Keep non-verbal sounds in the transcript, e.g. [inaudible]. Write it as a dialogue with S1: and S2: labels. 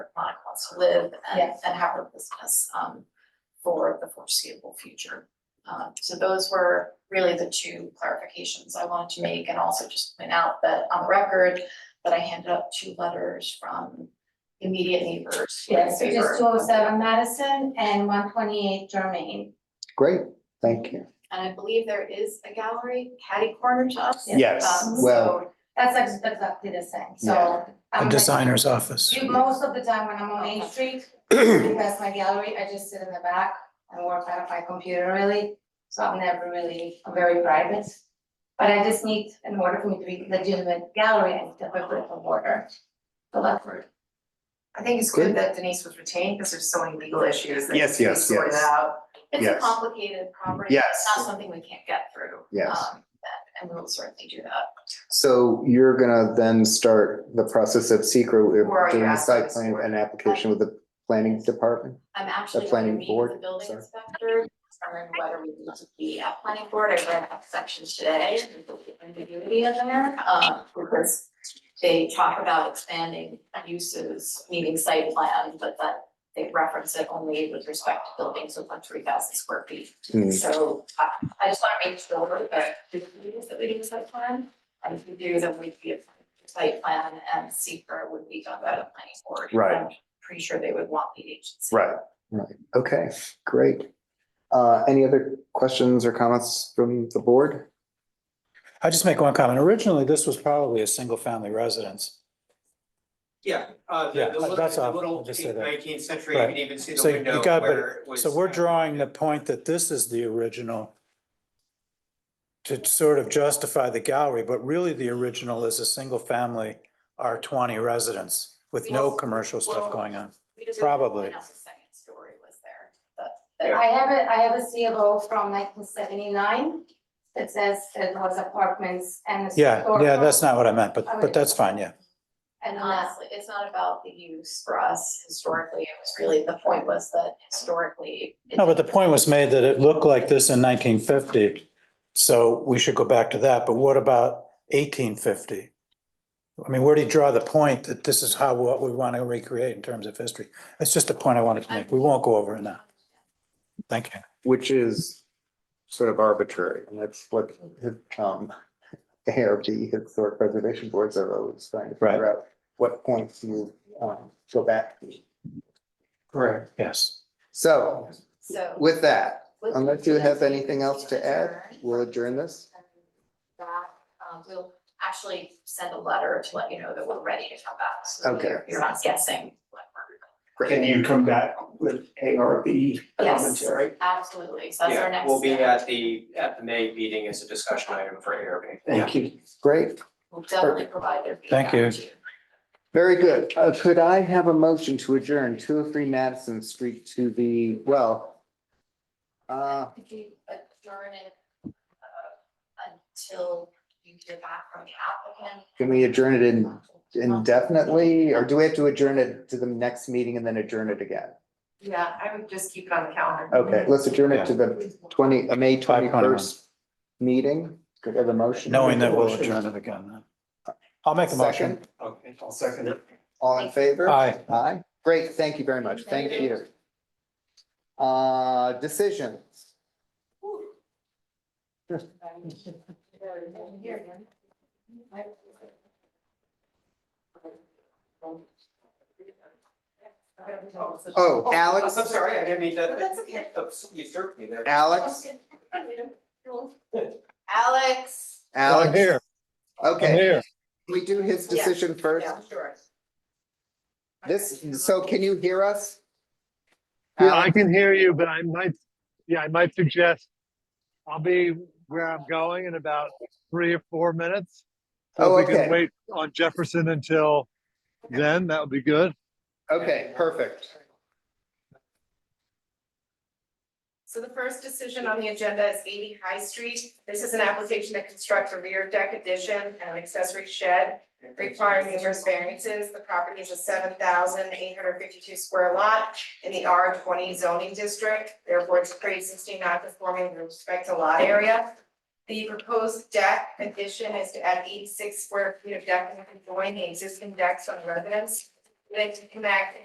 S1: to live and,
S2: Yes.
S1: and have a business, um, for the foreseeable future. Um, so those were really the two clarifications I wanted to make and also just point out that on the record that I handed out two letters from immediate neighbors. who were in
S2: Yes, which is
S1: favor.
S2: two oh seven Madison and one twenty-eight Germain.
S3: Great, thank you.
S1: And I believe there is a gallery catty corner to us.
S3: Yes,
S1: Um, so
S3: well-
S2: That's ex- exactly the same,
S3: Yeah.
S2: so. I'm
S4: A
S2: like-
S4: designer's office.
S2: You, most of the time when I'm on Main
S4: [clears throat]
S2: Street, that's my gallery, I just sit in the back and work out of my computer really. So I'm never really, I'm very private. But I just need, in order for me to be legitimate gallery, I need to have a bit of order. So that's where
S5: I think it's
S3: Good.
S5: good that Denise was retained because there's so many legal issues that need
S3: Yes,
S5: to be
S3: yes,
S5: sorted
S3: yes.
S5: out.
S1: It's a
S3: Yes.
S1: complicated property.
S3: Yes.
S1: It's not something we can't get through.
S3: Yes.
S1: um, And and we will certainly do that.
S3: So you're gonna then start the process of secret
S5: We're already
S3: doing a site
S5: asking
S3: plan
S5: for it.
S3: and application with the planning department?
S1: I'm actually going to
S3: planning
S1: meet
S3: board,
S1: with the building
S3: sorry.
S1: inspector, determine whether we need to be at planning board. I ran that section today. and the Ambiguity in there, um, because they talk about expanding uses, meaning site plan, but that they reference it only with respect to buildings with like three thousand square feet.
S3: Hmm.
S4: Mm.
S1: So I, I just want to make sure that the communities that we do site plan, and if we do, then we'd be a site plan and seeker would be done by the planning board.
S3: Right.
S1: I'm Pretty sure they would want lead agency.
S3: Right. Right, okay, great. Uh, any other questions or comments from the board?
S4: I just make one comment. Originally, this was probably a single-family residence.
S6: Yeah, uh,
S4: Yeah,
S6: the, the little,
S4: that's
S6: the
S4: all.
S6: little
S4: I'll just say that.
S6: nineteenth century, you
S4: Right.
S6: can even see the
S4: So you
S6: window
S4: got,
S6: where it
S4: but,
S6: was.
S4: so we're drawing the point that this is the original to sort of justify the gallery, but really the original is a single-family R twenty residence with no
S1: Yes.
S4: commercial
S1: Well-
S4: stuff going on.
S1: We just-
S4: Probably.
S1: And also second story was there, but-
S2: I have a, I have a CFO from nineteen seventy-nine that says it was apartments and. a
S4: Yeah,
S2: store-
S4: yeah, that's not what I meant, but,
S2: Okay.
S4: but that's fine, yeah.
S2: And
S1: And
S2: that's,
S1: honestly, it's not about the use for us historically, it was really, the point was that historically. it-
S4: No, but the point was made that it looked like this in nineteen fifty, so we should go back to that, but what about eighteen fifty? I mean, where do you draw the point that this is how, what we want to recreate in terms of history? That's just a point I wanted to make. We won't go over it now. Thank you.
S3: Which is sort of arbitrary, and that's what, um, ARB, Historic Preservation Boards are always trying to
S4: Right.
S3: figure out what points you, um, go back. to. Correct.
S4: Yes.
S3: So
S1: So.
S3: with that,
S1: with-
S3: Unless you have anything else to add, we'll adjourn this.
S1: That, um, we'll actually send a letter to let you know that we're ready to come back, so that
S3: Okay.
S1: you're, you're not guessing. what
S7: Can you come back with ARB
S1: we're doing. Yes,
S7: commentary?
S1: absolutely, so that's our
S6: Yeah,
S1: next.
S6: we'll be
S1: step.
S6: at the, at the May meeting as a discussion item for ARB.
S7: Thank you.
S3: Great,
S1: We'll definitely provide their feedback
S4: Thank you.
S1: to
S3: very good. Uh, could I have a motion to adjourn two oh three Madison Street to the, well, uh,
S1: Could you adjourn it uh, until you hear back from the applicant?
S3: can we adjourn it in indefinitely, or do we have to adjourn it to the next meeting and then adjourn it again?
S5: Yeah, I would just keep it on the calendar.
S3: Okay, let's adjourn it to the twenty, uh, May twenty
S4: 5:21.
S3: first meeting. Could I have a motion?
S4: Knowing that we'll adjourn it again. then. I'll make a motion.
S3: Second,
S6: Okay.
S7: I'll second it.
S3: all in favor?
S4: Aye.
S3: Aye, great, thank you very much, thank you. Uh, decisions. Oh, Alex,
S6: Uh, I'm sorry, I didn't mean to.
S5: But that's okay.
S6: Oops, You served me there.
S3: Alex,
S1: Alex.
S4: I'm
S3: Alex,
S4: here. I'm
S3: okay,
S4: here.
S3: we do his
S5: Yeah.
S3: decision first.
S5: Yeah, sure.
S3: This, so can you hear us?
S8: Yeah, I can hear you, but I might, yeah, I might suggest I'll be where I'm going in about three or four minutes. So
S3: Oh,
S8: if we
S3: okay.
S8: can wait on Jefferson until then, that would be good.
S3: Okay, perfect.
S5: So the first decision on the agenda is eighty High Street. This is an application that constructs a rear deck addition and an accessory shed requiring numerous variances. The property is a seven thousand eight hundred fifty-two square lot in the R twenty zoning district. Therefore, it's pre-existing non-conforming with respect to lot area. The proposed deck addition is to add eighty-six square feet of deck and join the existing decks on the residence. Like to connect